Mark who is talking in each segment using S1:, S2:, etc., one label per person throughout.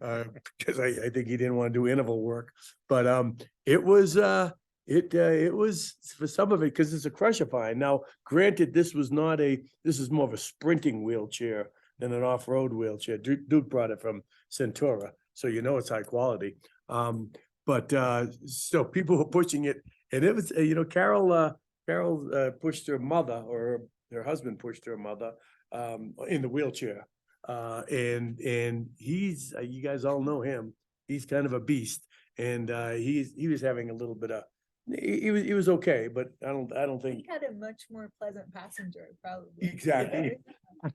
S1: uh, because I, I think he didn't want to do interval work. But, um, it was, uh, it, uh, it was for some of it, because it's a crusher pine. Now, granted, this was not a, this is more of a sprinting wheelchair than an off-road wheelchair. Duke, Duke brought it from Centura, so you know it's high quality. Um, but, uh, so people were pushing it and it was, uh, you know, Carol, uh, Carol, uh, pushed her mother or her husband pushed her mother, um, in the wheelchair. Uh, and, and he's, uh, you guys all know him. He's kind of a beast. And, uh, he's, he was having a little bit of, he, he was, he was okay, but I don't, I don't think.
S2: He had a much more pleasant passenger, probably.
S1: Exactly.
S2: right?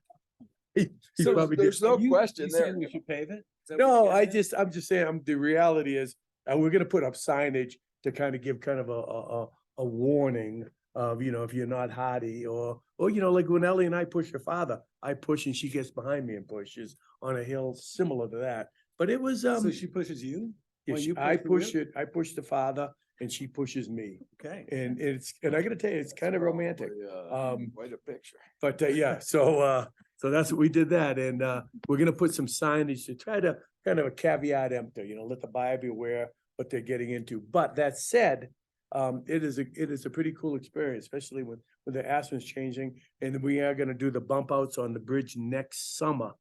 S1: he- he
S3: So
S1: probably
S3: there's
S1: did.
S3: no question there.
S4: We should pave it?
S1: No, I just, I'm just saying, I'm, the reality is, uh, we're gonna put up signage to kind of give kind of a, a, a, a warning of, you know, if you're not hardy or, or, you know, like when Ellie and I push her father, I push and she gets behind me and pushes on a hill similar to that. But it was, um,
S4: So she pushes you?
S1: if
S4: when
S1: she-
S4: you
S1: I
S4: push
S1: push
S4: the
S1: it, I push the father and she pushes me.
S4: Okay.
S1: And it's, and I gotta tell you, it's kind of romantic. Um,
S3: Quite a picture.
S1: But uh, yeah, so uh, so that's what we did that, and uh, we're gonna put some signage to try to kind of a caveat emptor, you know, let the buyer beware what they're getting into. But that said, um, it is a, it is a pretty cool experience, especially when when the Aspen's changing, and we are gonna do the bump outs on the bridge next summer.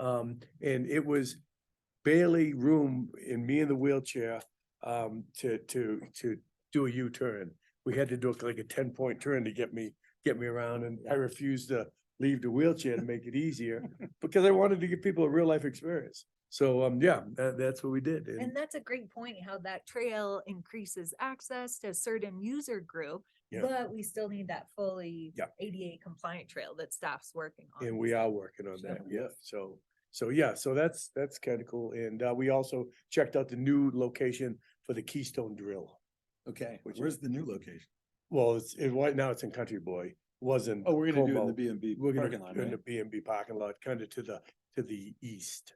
S1: Um, and it was barely room in me in the wheelchair um to to to do a U-turn. We had to do like a ten-point turn to get me get me around and I refused to leave the wheelchair to make it easier because I wanted to give people a real life experience. So um, yeah, that, that's what we did. And
S2: And that's a great point, how that trail increases access to a certain user group,
S1: Yeah.
S2: but we still need that fully
S1: Yeah.
S2: ADA compliant trail that staff's working on.
S1: and we are working on that. Yeah. So, so yeah, so that's, that's kind of cool. And uh, we also checked out the new location for the Keystone Drill.
S4: Okay,
S1: Which
S4: where's the new location?
S1: Well, it's, it, right now it's in Country Boy, wasn't.
S4: Oh, we're gonna do it in
S1: Como.
S4: the B and B
S1: We're
S4: parking
S1: gonna,
S4: lot,
S1: do it in the
S4: right?
S1: B and B parking lot, kind of to the, to the east.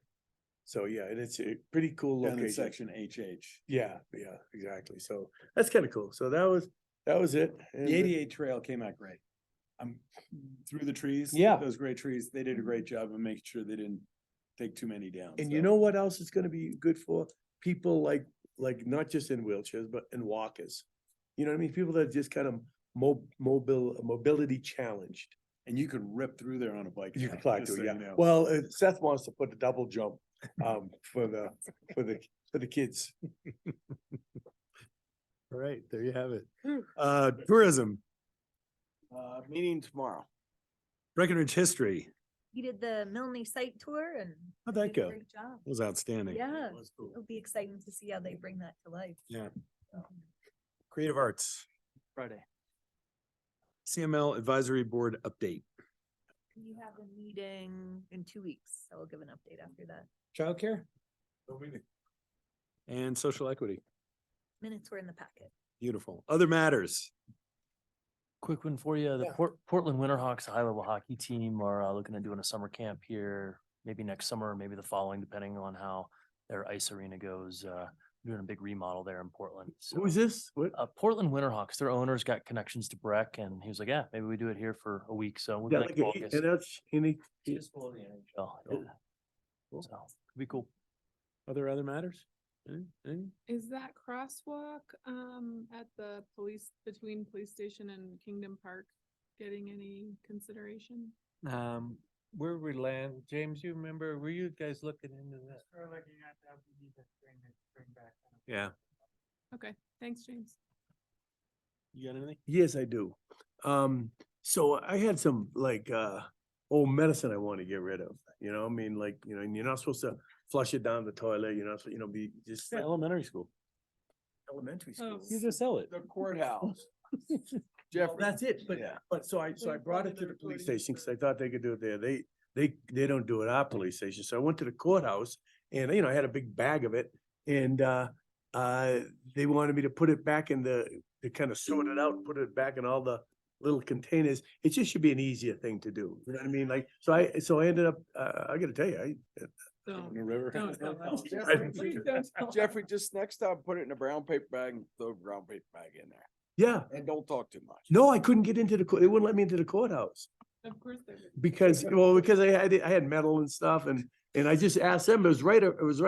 S1: So yeah, and it's a pretty cool
S4: Down in
S1: location.
S4: section HH.
S1: Yeah, yeah, exactly. So that's kind of cool. So that was, that was it. and, uh,
S4: The eighty-eight trail came out great. I'm through the trees.
S1: Yeah.
S4: Those great trees, they did a great job of making sure they didn't take too many down.
S1: And you
S4: so.
S1: know what else it's gonna be good for? People like, like not just in wheelchairs, but in walkers. You know what I mean? People that are just kind of mo- mobile, mobility challenged.
S4: And you could rip through there on a bike.
S1: You
S4: path,
S1: can fly
S4: just
S1: to,
S4: so
S1: yeah.
S4: you know.
S1: Well, uh, Seth wants to put a double jump, um, for the, for the, for the kids.
S5: All right, there you have it.
S2: Whew.
S5: Uh, tourism,
S3: Uh, meeting tomorrow.
S5: Breckenridge history
S2: He did the Milne site tour and.
S5: How'd
S2: he
S5: that
S2: did a
S5: go?
S2: great job.
S5: was outstanding.
S2: Yeah,
S1: That's cool.
S2: it'll be exciting to see how they bring that to life.
S5: Yeah.
S2: Um,
S5: Creative arts,
S3: Friday.
S5: CML advisory board update.
S2: You have a meeting in two weeks, so I'll give an update after that.
S5: Childcare? And social equity.
S2: Minutes were in the packet.
S5: Beautiful. Other matters.
S6: Quick one for you. The Port, Portland Winterhawks high level hockey team are uh, looking at doing a summer camp here, maybe next summer, maybe the following, depending on how their ice arena goes. Uh, doing a big remodel there in Portland. So,
S1: Who is this? What?
S6: Uh, Portland Winterhawks, their owners got connections to Breck and he was like, yeah, maybe we do it here for a week. So we'll be
S1: Yeah,
S6: back
S1: like
S6: in
S1: a-
S6: August.
S1: and that's- and he- he-
S6: Just below the NHL, yeah.
S1: Cool. Cool.
S6: So, could be cool.
S5: Other, other matters? Any- any?
S7: Is that crosswalk, um, at the police, between police station and Kingdom Park getting any consideration?
S8: Um, where we land, James, you remember, were you guys looking into that?
S5: Yeah.
S7: Okay, thanks, James.
S5: You got anything?
S1: Yes, I do. Um, so I had some like uh old medicine I want to get rid of. You know, I mean, like, you know, and you're not supposed to flush it down the toilet, you're not, supposed- you know, be just like
S5: Elementary school.
S1: elementary school.
S7: Oh.
S5: You just sell it.
S3: The courthouse.
S1: Well,
S3: Jeffrey.
S1: That's it, but
S3: Yeah.
S1: but so I, so I
S7: Like
S1: brought
S7: probably
S1: it to
S7: the
S1: the police
S7: recording
S1: station because I
S7: service.
S1: thought they could do it there. They, they, they don't do it at our police station. So I went to the courthouse and, you know, I had a big bag of it. And, uh, uh, they wanted me to put it back in the, to kind of sort it out, and put it back in all the little containers. It just should be an easier thing to do. You know what I mean? Like, so I, so I ended up, uh, I gotta tell you, I,
S7: Don't,
S4: The river.
S7: don't tell us.
S3: Jeffrey,
S7: Please
S3: just-
S7: don't tell us.
S3: Jeffrey, just next time, put it in a brown paper bag and throw a brown paper bag in there
S1: yeah,
S3: and don't talk too much.
S1: no, I couldn't get into the, cour- they wouldn't let me into the courthouse.
S7: Of course they would.
S1: Because, well, because I had, I had metal and stuff and, And I just asked them, it was right, it was right